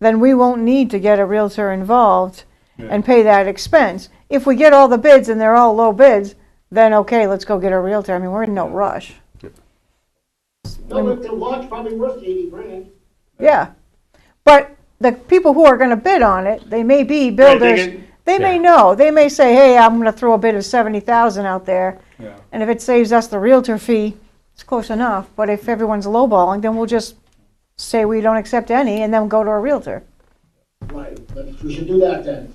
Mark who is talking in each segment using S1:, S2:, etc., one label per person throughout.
S1: then we won't need to get a Realtor involved and pay that expense. If we get all the bids and they're all low bids, then okay, let's go get a Realtor. I mean, we're in no rush.
S2: No, but the lot's probably worth eighty grand.
S1: Yeah. But the people who are gonna bid on it, they may be
S2: they
S1: builders.
S2: can-
S1: They may
S3: Yeah.
S1: know. They may say, hey, I'm gonna throw a bid of seventy thousand out there.
S3: Yeah.
S1: And if it saves us the Realtor fee, it's close enough. But if everyone's lowballing, then we'll just say we don't accept any and then go to a Realtor.
S2: Right, but we should do that then.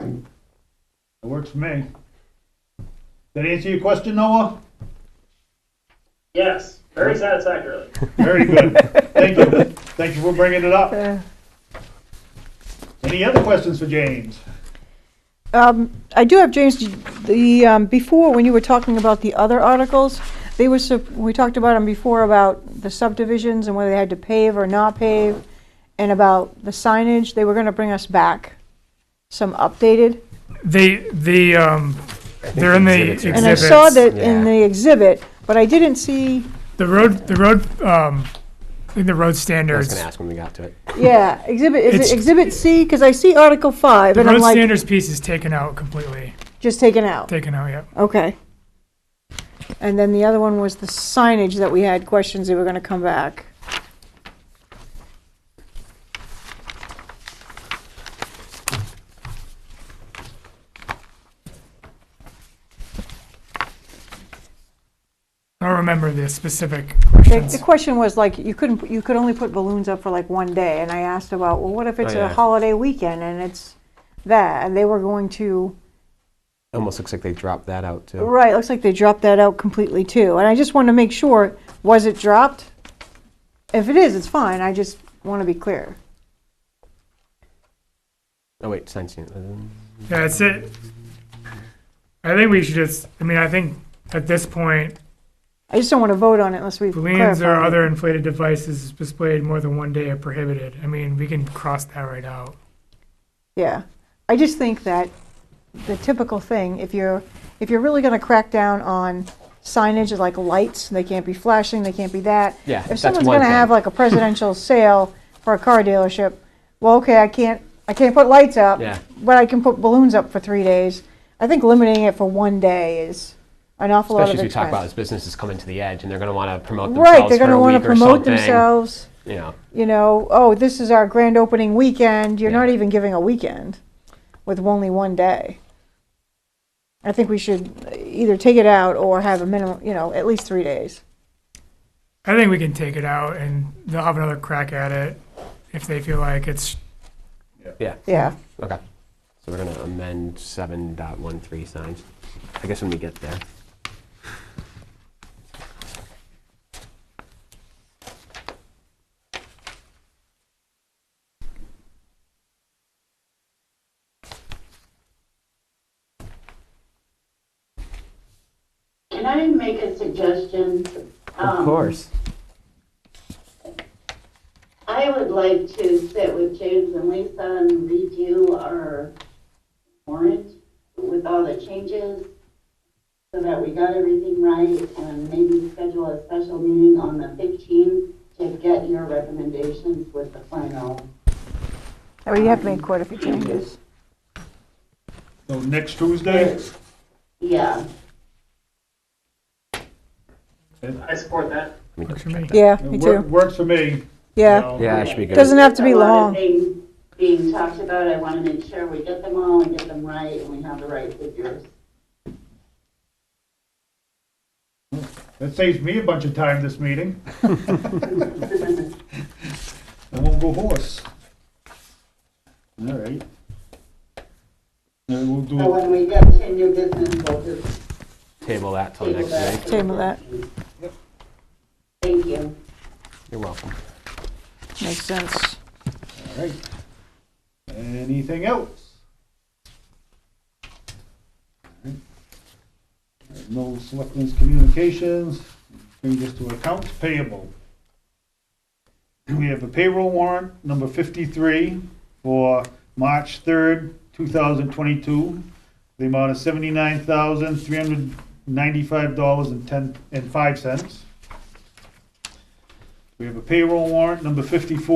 S4: It works for me. Did I answer your question, Noah?
S5: Yes, very satisfactorily.
S4: Very good. Thank you. Thank you for bringing it up.
S1: Uh,
S4: Any other questions for James?
S1: Um, I do have, James, the, um, before, when you were talking about the other articles, they were, sup- we talked about them before about the subdivisions and whether they had to pave or not pave, and about the signage, they were gonna bring us back some updated.
S6: They, the, um, they're in the exhibits.
S1: And I saw that in the exhibit, but I didn't see,
S6: The road, the road, um, I think the road
S3: I was
S6: standards,
S3: gonna ask when we got to it.
S1: yeah, exhibit, is
S6: It's-
S1: it exhibit C? Because I see Article Five,
S6: the
S1: and I'm
S6: road
S1: like,
S6: standards piece is taken out completely,
S1: just taken out,
S6: taken out, yeah.
S1: okay. And then the other one was the signage that we had questions, they were gonna come back.
S6: I don't remember the specific
S1: The, the
S6: questions.
S1: question was like, you couldn't, put- you could only put balloons up for like one day, and I asked about, well, what if it's
S3: Oh,
S1: a
S3: yeah.
S1: holiday weekend and it's that, and they were going to,
S3: Almost looks like they dropped that out too.
S1: right, looks like they dropped that out completely too, and I just want to make sure, was it dropped? If it is, it's fine, I just want to be clear.
S3: Oh wait, signs. um,
S6: Yeah, That's it. I think we should just, I mean, I think at this point,
S1: I just don't want to vote on it unless we
S6: balloons or
S1: clarify.
S6: other inflated devices displayed more than one day are prohibited. I mean, we can cross that right out.
S1: Yeah, I just think that the typical thing, if you're, if you're really gonna crack down on signage like lights, they can't be flashing, they can't be that.
S3: Yeah, that's
S1: If someone's
S3: one
S1: gonna have
S3: thing.
S1: like a presidential sale for a car dealership, well, okay, I can't, I can't put lights up.
S3: Yeah.
S1: But I can put balloons up for three days. I think limiting it for one day is an awful lot of
S3: Especially as we talk about
S1: expense.
S3: as businesses coming to the edge and they're gonna wanna promote themselves
S1: Right, they're
S3: for
S1: gonna
S3: a
S1: wanna
S3: week or
S1: promote
S3: something,
S1: themselves,
S3: You know,
S1: you know, oh, this is our grand opening weekend, you're not
S3: Yeah.
S1: even giving a weekend with only one day. I think we should either take it out or have a minimum, you know, at least three days.
S6: I think we can take it out and they'll have another crack at it if they feel like it's,
S3: yeah.
S1: Yeah.
S3: Okay. So we're gonna amend seven dot one three signs. I guess when we get there.
S7: Can I make a suggestion?
S3: Of
S7: Um,
S3: course.
S7: I would like to sit with James and Lisa and review our warrant with all the changes so that we got everything right and maybe schedule a special meeting on the 15th to get your recommendations with the final.
S1: Well, Oh, you have made quite a few changes.
S4: So next Tuesday?
S7: Yeah,
S5: I support that.
S3: Let me
S6: Works for me.
S1: Yeah,
S4: It
S1: me
S4: wor-
S1: too.
S4: Works for me.
S1: Yeah.
S4: So-
S3: Yeah, it should be good.
S1: Doesn't have to be
S7: There's a lot of
S1: long.
S7: things Being talked about, I want to make sure we get them all and get them right and we have the right figures.
S4: That saves me a bunch of time this meeting. I won't go horse. All right. And we'll do
S7: So
S4: it.
S7: when we get to new business, we'll just
S3: Table that till
S7: table
S3: next
S7: that.
S3: week.
S1: Table that.
S7: Thank you.
S3: You're welcome.
S1: Makes sense.
S4: All right. Anything else? All right. No selectmen's communications, bring this to accounts payable. We have a payroll warrant number fifty-three for March third, two thousand twenty-two. The amount of seventy-nine thousand, three hundred ninety-five dollars and ten, and five cents. We have a payroll warrant number fifty-four